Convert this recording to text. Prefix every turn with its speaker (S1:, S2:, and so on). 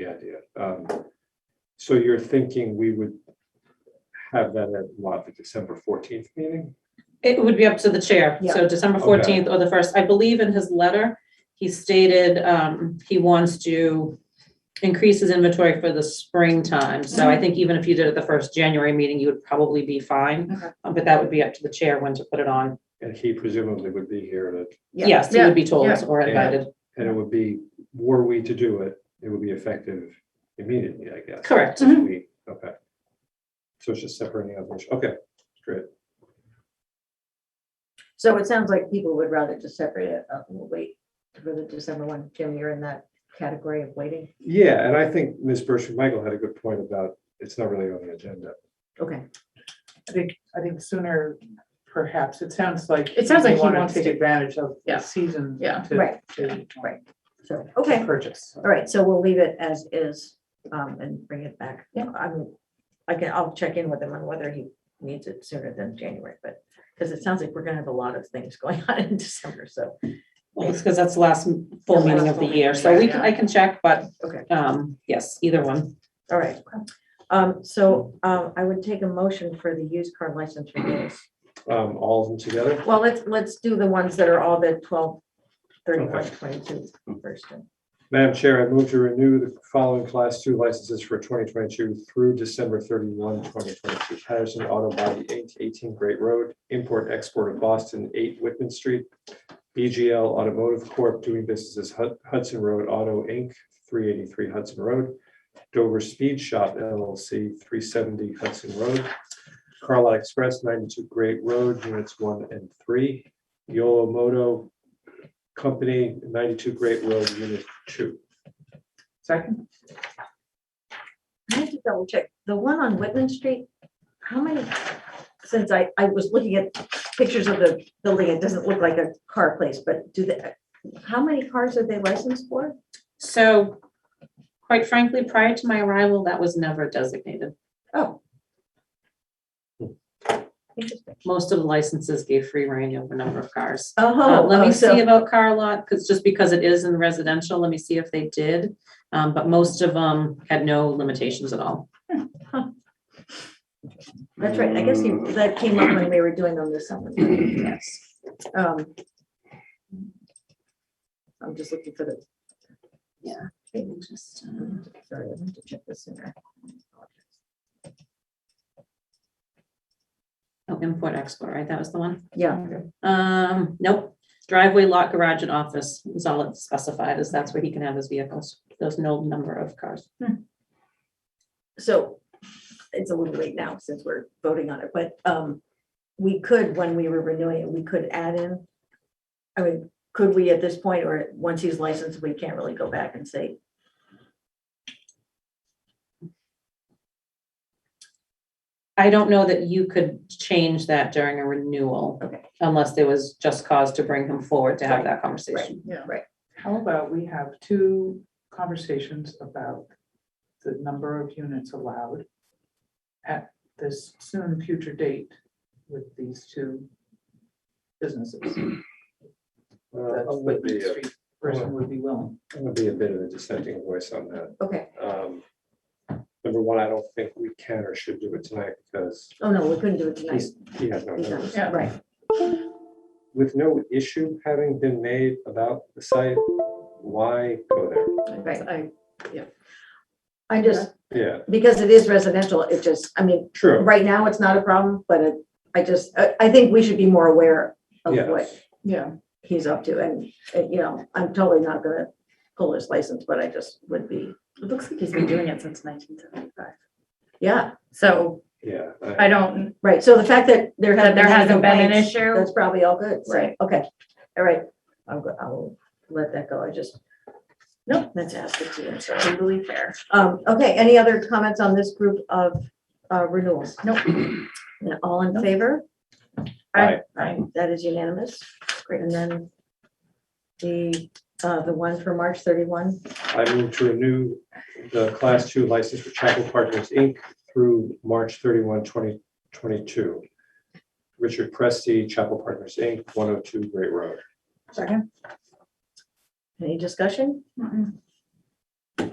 S1: idea. Um, So you're thinking we would have that at what, the December fourteenth meeting?
S2: It would be up to the chair, so December
S1: Okay.
S2: fourteenth or the first, I believe in his letter, he stated, um, he wants to increase his inventory for the springtime, so
S3: Mm-hmm.
S2: I think even if you did it the first January meeting, you would probably be fine.
S3: Okay.
S2: Uh, But that would be up to the chair when to put it on,
S1: And he presumably would be here, to-
S3: Yeah.
S2: yes, he would be told
S3: Yeah.
S2: or
S1: Yeah.
S2: invited,
S1: and it would be, were we to do it, it would be effective immediately, I guess.
S2: correct,
S3: Mhm.
S1: We- Okay. So it's just separating out, which- okay, great.
S3: So it sounds like people would rather just separate it up and we'll wait for the December one. Jim, you're in that category of waiting.
S1: Yeah, and I think Ms. Bershon Michael had a good point about it's not really on the agenda.
S3: Okay.
S4: I think, I think sooner perhaps, it sounds like.
S5: It sounds like he
S4: wanna
S5: wants
S4: Take
S5: to-
S4: advantage of
S5: Yeah.
S4: the season.
S5: Yeah.
S4: to-
S3: Right.
S4: to-
S3: Right. So,
S4: to
S3: okay, all
S4: Purchase.
S3: right. So we'll leave it as is um, and bring it back. Yeah. I'm, I can, I'll check in with him on whether he needs it sooner than January, but because it sounds like we're gonna have a lot of things going on in December. So,
S2: because that's the last m- full
S3: The
S2: meeting
S3: last
S2: of the
S3: full
S2: year,
S3: meeting,
S2: so we,
S5: yeah.
S2: can- I can check, but,
S3: okay,
S2: um, yes, either one.
S3: all right. Um, So um, I would take a motion for the used car license renewals.
S1: Um, all of them together?
S3: Well, let's, let's do the ones that are all the 12, 31, 22 first.
S1: Madam Chair, I move to renew the following class two licenses for twenty twenty-two through December 31, 2022. Patterson Auto Body Inc., eighteen Great Road, Import Export of Boston, eight Whitman Street. BGL Automotive Corp. doing business as Hud- Hudson Road Auto Inc., three eighty-three Hudson Road. Dover Speed Shop LLC, three seventy Hudson Road. Carlisle Express, ninety-two Great Road, units one and three. Yolo Moto Company, ninety-two Great Road, unit two.
S4: Second,
S3: I have to double check, the one on Whitman Street, how many, since I, I was looking at pictures of the building, it doesn't look like a car place, but do the, how many cars are they licensed for?
S2: So quite frankly, prior to my arrival, that was never designated.
S3: Oh. Interesting.
S2: Most of the licenses gave free rein over number of cars. Uh,
S3: Oh,
S2: Let
S3: oh,
S2: me see
S3: so,
S2: about car lot, because just because it is in residential, let me see if they did. Um, But most of them had no limitations at all.
S3: that's right, I guess you, that came up when we were doing them this summer.
S2: Yes.
S3: Um, I'm just looking for the, uh, sorry, I have to check this sooner.
S2: Oh, import export, right? That was the one.
S3: Yeah,
S2: Um, Nope. Driveway, lot, garage, and office is all it's specified, is that's where he can have his vehicles. There's no number of cars.
S3: so it's a little late now since we're voting on it, but um, we could, when we were renewing it, we could add in. I mean, could we at this point, or once he's licensed, we can't really go back and say,
S2: I don't know that you could change that during a renewal.
S3: Okay.
S2: Unless there was just cause to bring him forward to have
S3: Right,
S2: that conversation.
S4: how about we have two conversations about the number of units allowed at this soon future date with these two businesses?
S1: Uh,
S4: That
S1: I'm gonna
S4: Whitman
S1: be a-
S4: Street person would be willing.
S1: I'm gonna be a bit of a dissenting voice on that.
S3: okay,
S1: Um, Number one, I don't think we can or should do it tonight because
S3: oh no, we couldn't do it tonight.
S1: he's, he has no
S3: He's not-
S1: notice.
S4: Yeah.
S3: Right,
S1: With no issue having been made about the site, why go there?
S3: right.
S5: I, yeah.
S3: I just,
S1: Yeah,
S3: because it is residential, it just, I mean,
S1: true.
S3: right now it's not a problem, but it- I just, I, I think we should be more aware of
S1: Yeah.
S3: what
S5: Yeah,
S3: he's up to, and, and, you know, I'm totally not gonna pull his license, but I just would be,
S5: it looks like he's been doing it since nineteen seventy-five.
S3: yeah,
S5: So
S1: Yeah.
S5: I don't,
S3: right, so the fact that there hasn't.
S5: that there
S3: been any
S5: hasn't been an
S3: complaints,
S5: issue.
S3: That's probably all good, right,
S5: Right.
S3: okay, all right, I'll, go- I'll let that go, I just, no, that's asked to you, sorry.
S5: Totally fair.
S3: Um, okay, any other comments on this group of, uh, renewals?
S5: Nope.
S3: And all in favor?
S1: Aye.
S3: Aye. That is unanimous, great, and then the, uh, the one for March thirty-one,
S1: I move to renew the class two license for Chapel Partners Inc. through March 31, 2022. Richard Presti, Chapel Partners Inc., one oh two Great Road.
S3: Any discussion?
S5: Mm-mm.